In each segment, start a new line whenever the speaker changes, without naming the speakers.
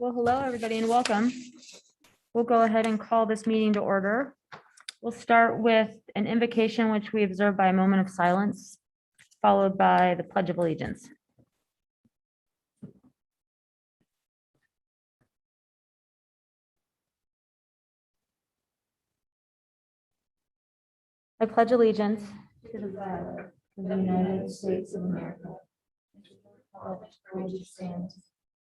Well, hello, everybody, and welcome. We'll go ahead and call this meeting to order. We'll start with an invocation which we observe by a moment of silence, followed by the Pledge of Allegiance. I pledge allegiance
to the flag of the United States of America. and to the republic for which it stands,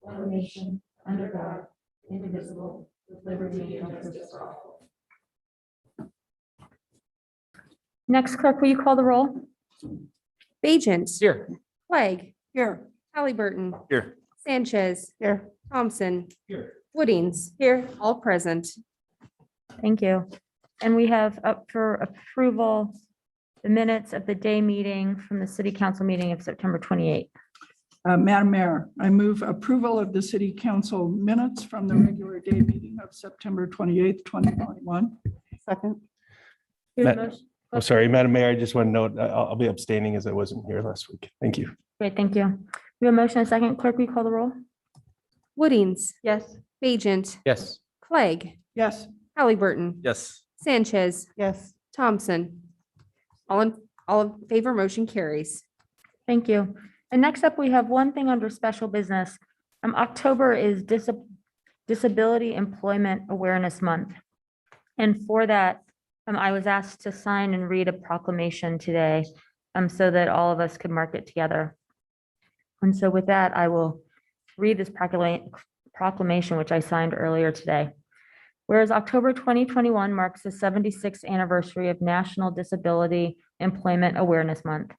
one nation, under God, indivisible, with liberty and justice for all.
Next clerk, will you call the roll?
Bajent.
Here.
Clegg.
Here.
Halliburton.
Here.
Sanchez.
Here.
Thompson.
Here.
Woodings. Here. All present.
Thank you. And we have up for approval the minutes of the day meeting from the city council meeting of September 28.
Uh, Madam Mayor, I move approval of the city council minutes from the regular day meeting of September 28th, 2021.
Second.
We have a
Ma-
motion-
I'm Oh, sorry, Madam Mayor, I just want to note, I- I'll I'll be abstaining as I wasn't here last week. Thank you.
Great, thank you. We have a motion, and a second. Clerk, will you call the roll?
Woodings.
Yes.
Bajent.
Yes.
Clegg.
Yes,
Halliburton.
Yes.
Sanchez.
Yes.
Thompson. All in, all in favor, motion carries.
Thank you. And next up, we have one thing under special business. Um, October is Dis- Disability Employment Awareness Month. And for that, um, I was asked to sign and read a proclamation today, um, so that all of us could mark it together. And so with that, I will read this proclama- proclamation, which I signed earlier today. Whereas October 2021 marks the 76th anniversary of National Disability Employment Awareness Month.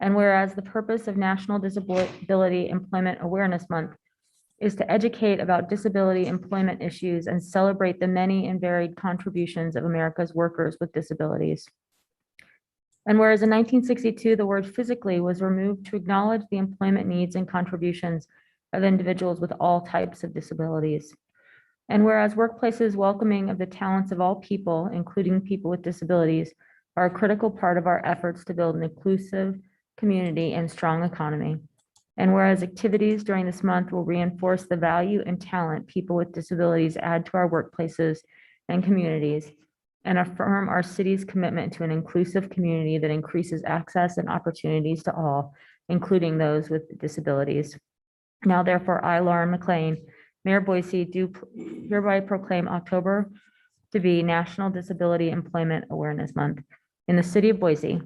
And whereas the purpose of National Disability Employment Awareness Month is to educate about disability employment issues and celebrate the many and varied contributions of America's workers with disabilities. And whereas in 1962, the word physically was removed to acknowledge the employment needs and contributions of individuals with all types of disabilities. And whereas workplaces welcoming of the talents of all people, including people with disabilities, are a critical part of our efforts to build an inclusive, community, and strong economy. And whereas activities during this month will reinforce the value and talent people with disabilities add to our workplaces and communities and affirm our city's commitment to an inclusive community that increases access and opportunities to all, including those with disabilities. Now therefore, I, Lauren McLean, Mayor Boise, do hereby proclaim October to be National Disability Employment Awareness Month in the city of Boise.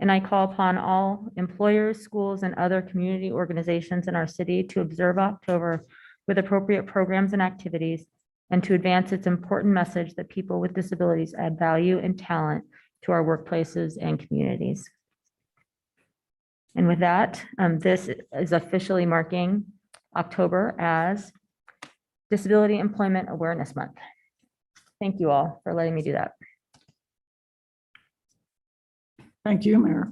And I call upon all employers, schools, and other community organizations in our city to observe October with appropriate programs and activities and to advance its important message that people with disabilities add value and talent to our workplaces and communities. And with that, um, this is officially marking October as Disability Employment Awareness Month. Thank you all for letting me do that.
thank you, Mayor.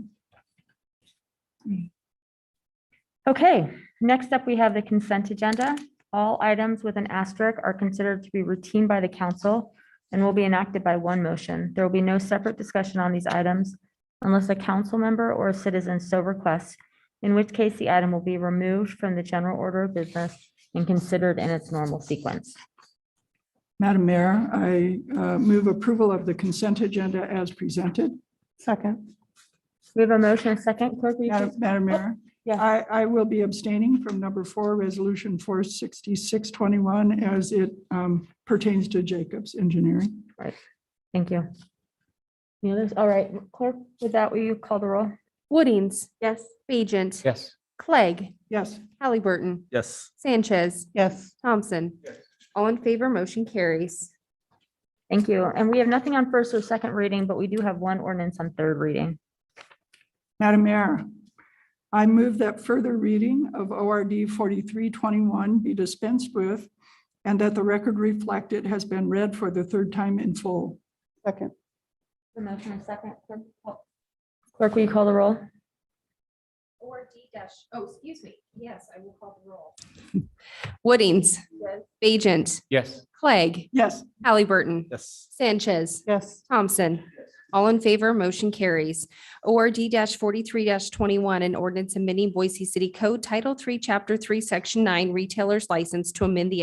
Okay, next up, we have the consent agenda. All items with an asterisk are considered to be routine by the council and will be enacted by one motion. There will be no separate discussion on these items unless a council member or a citizen so requests, in which case the item will be removed from the general order of business and considered in its normal sequence.
Madam Mayor, I uh, move approval of the consent agenda as presented.
Second.
We have a motion, and a second, clerk, will you
Madam
please-
Madam Mayor,
yes.
I, I will be abstaining from number four, Resolution 46621, as it um, pertains to Jacobs Engineering.
thank you. Any others? All right, clerk, with that, will you call the roll?
Woodings.
Yes.
Bajent.
Yes.
Clegg.
Yes,
Halliburton.
Yes.
Sanchez.
Yes.
Thompson. All in favor, motion carries.
Thank you. And we have nothing on first or second reading, but we do have one ordinance on third reading.
Madam Mayor, I move that further reading of ORD 4321 be dispensed with and that the record reflect it has been read for the third time in full.
Second.
The motion is second. Clerk, will you call the roll?
Or D dash, oh, excuse me, yes, I will call the roll.
Woodings. Bajent.
Yes.
Clegg.
Yes,
Halliburton.
Yes.
Sanchez.
Yes.
Thompson. All in favor, motion carries. ORD forty-three twenty-one, an ordinance amending Boise City Code Title Three, Chapter Three, Section Nine, Retailers License to amend the